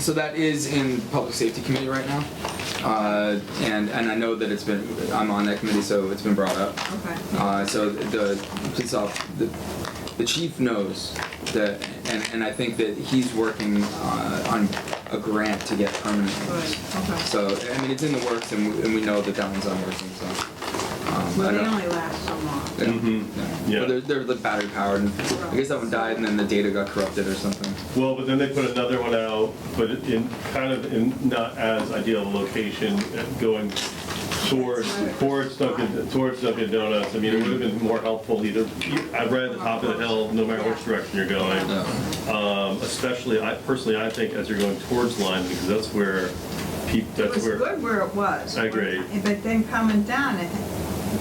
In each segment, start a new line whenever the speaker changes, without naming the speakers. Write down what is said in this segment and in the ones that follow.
so that is in public safety committee right now, uh, and and I know that it's been I'm on that committee, so it's been brought up.
Okay.
Uh, so the police off, the, the chief knows that, and, and I think that he's working uh, on a grant to get permanent.
Right,
ones.
okay.
So I mean, it's in the works, and we, and we know that that one's on working. So. Um,
Well,
I
they
don't-
only last so long.
yeah.
Mhm.
Yeah.
Yeah.
But they're, they're the battery powered. And I guess that one died, and then the data got corrupted or something.
Well, but then they put another one out, but in, kind of in not as ideal a location, uh, going towards, towards Dunkin', towards Dunkin' Donuts. I mean, it would have been more helpful either, I read the top of the hill, no matter which direction you're going.
No.
Um, Especially, I, personally, I think as you're going towards Lyme, because that's where peop,
It was
that's where.
good where it was.
I agree.
But then coming down, it,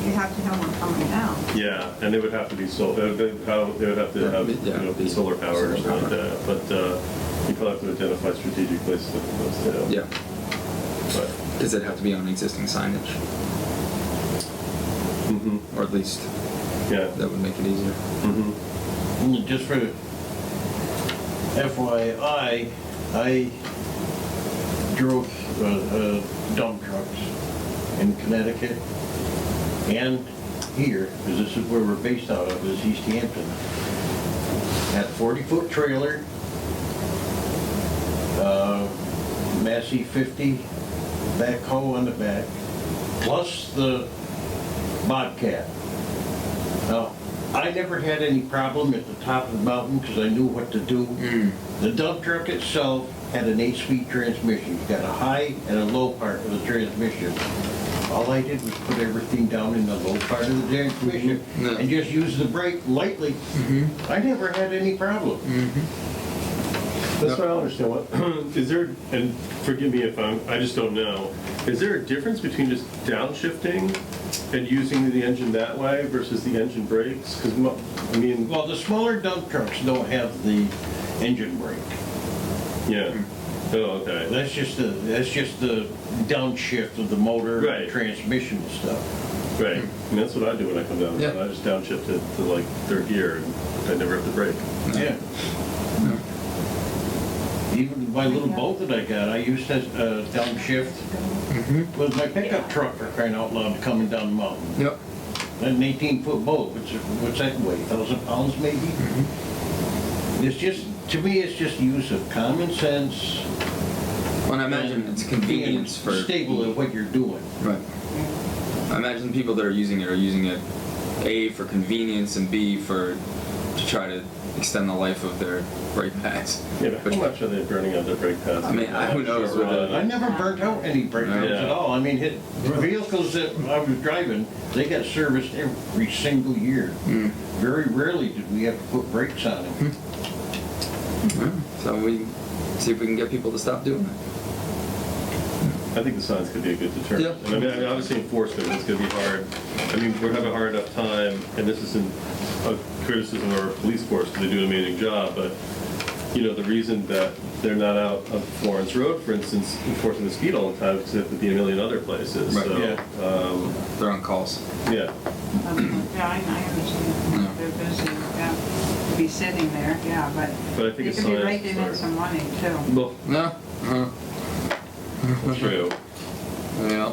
you have to have one coming down.
Yeah, and they would have to be solar, they would have they would have to have, you know, be solar powered or something like that. But uh, you probably have to identify strategic places to put those down.
Yeah,
But,
because it'd have to be on existing signage,
mhm,
or at least
yeah.
that would make it easier.
mhm.
Mm, Just for FYI, I drove uh, uh, dump trucks in Connecticut and here, because this is where we're based out of, is East Hampton. Had forty-foot trailer, uh, Massey fifty, backhoe on the back, plus the Bobcat. Now, I never had any problem at the top of the mountain because I knew what to do. The dump truck itself had an eight-speed transmission. You got a high and a low part of the transmission. All I did was put everything down in the low part of the transmission
Mhm. Yeah.
and just use the brake lightly. I never had any problem.
That's what I don't understand. What, is there, and forgive me if I'm, I just don't know, is there a difference between just downshifting and using the engine that way versus the engine brakes? Because, I mean,
Well, the smaller dump trucks don't have the engine brake.
yeah. Oh, okay.
That's just the, that's just the downshift of the motor,
Right.
and transmission and stuff.
Right. And that's what I do when I come down.
Yeah.
I just downshift it to like third gear and I never have to brake.
Yeah.
No.
Even my little boat that I got, I used to uh, downshift with my pickup truck for crying out loud coming down the mountain.
Yep.
An 18-foot boat, which, what's that weigh, 1,000 pounds maybe? It's just, to me, it's just use of common sense.
Well, I imagine
and
it's convenience for
being Stable at what you're doing.
Right. I imagine the people that are using it are using it A for convenience and B for to try to extend the life of their brake pads.
Yeah, but how much are they burning out their brake pads?
I mean, who knows with the-
I never burnt out any brake
Yeah.
pads at all. I mean, hit, the vehicles that I was driving, they got serviced every single year.
Mm.
Very rarely did we have to put brakes on them.
So we see if we can get people to stop doing it.
I think the signs could be a good deterrent.
Yeah.
And I mean, I mean, obviously enforcement is gonna be hard. I mean, we're having a hard enough time, and this isn't a criticism of our police force, because they do an amazing job, but, you know, the reason that they're not out on Florence Road, for instance, enforcing the speed all the time, is because they have to be in a million other places,
Right,
so,
yeah.
um,
They're on calls.
yeah.
Um, Yeah, I I
Yeah.
understand, they're busy, yeah, to be sitting there, yeah, but.
But I think a
You could
sign-
be raking in some money too.
Well,
No. Uh,
true.
yeah.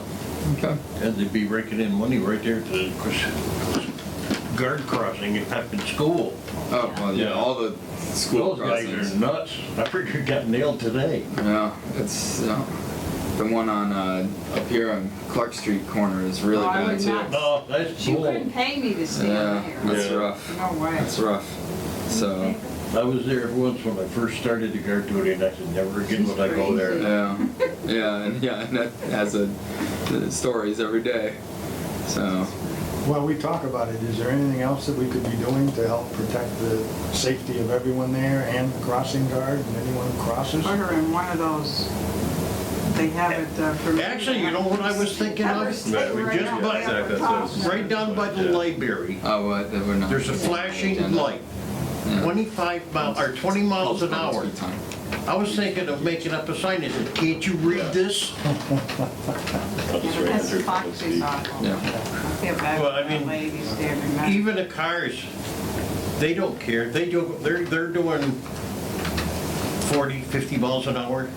Okay.
And they'd be raking in money right there to the cross- guard crossing at Pepin School.
Oh well, yeah.
Yeah.
All the school
Those guys
crossings.
are nuts. I figured got nailed today.
Yeah, it's yeah. the one on uh, up here on Clark Street corner is really
Oh, I
bad
would
too.
not
No, that's
She
bull.
couldn't pay me to stand
Yeah,
here.
that's
Yeah.
rough.
No way.
That's rough. So
I was there once when I first started the guard duty and I said, never again would I go there.
yeah, yeah, and yeah, and that has a the stories every day. So
While we talk about it, is there anything else that we could be doing to help protect the safety of everyone there and the crossing guard and anyone who crosses?
Put her in one of those, they have it uh, for.
Actually, you know what I was thinking
Have her
of?
sit
Right, we
right
just
out
about-
there at the
Exactly, that's what I was-
top.
Right down by the
Yeah.
library,
oh, what that we're not.
there's a flashing light, twenty-five mile, or twenty miles an hour.
Speed time.
I was thinking of making up a sign that said, can't you read this?
I'll just
Yeah,
write
That's
under it.
Fox's awful.
Yeah.
I feel bad
Well, I
for the
mean,
ladies there tonight.
Even the cars, they don't care, they do, they're, they're doing 40, 50 miles an hour.